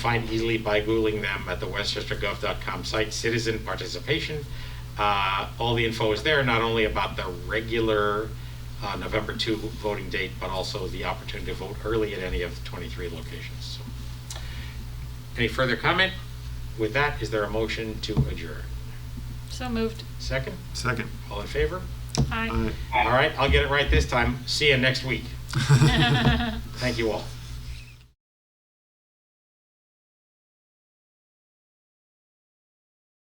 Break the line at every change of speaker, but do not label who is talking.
find easily by Googling them at the westchestergov.com site, citizen participation. Uh, all the info is there, not only about the regular uh, November 2 voting date, but also the opportunity to vote early at any of the 23 locations. So, Any further comment? With that, is there a motion to adjourn?
So moved.
Second?
Second.
All in favor?
Aye.
All right.
All right, I'll get it right this time. See you next week. Thank you all.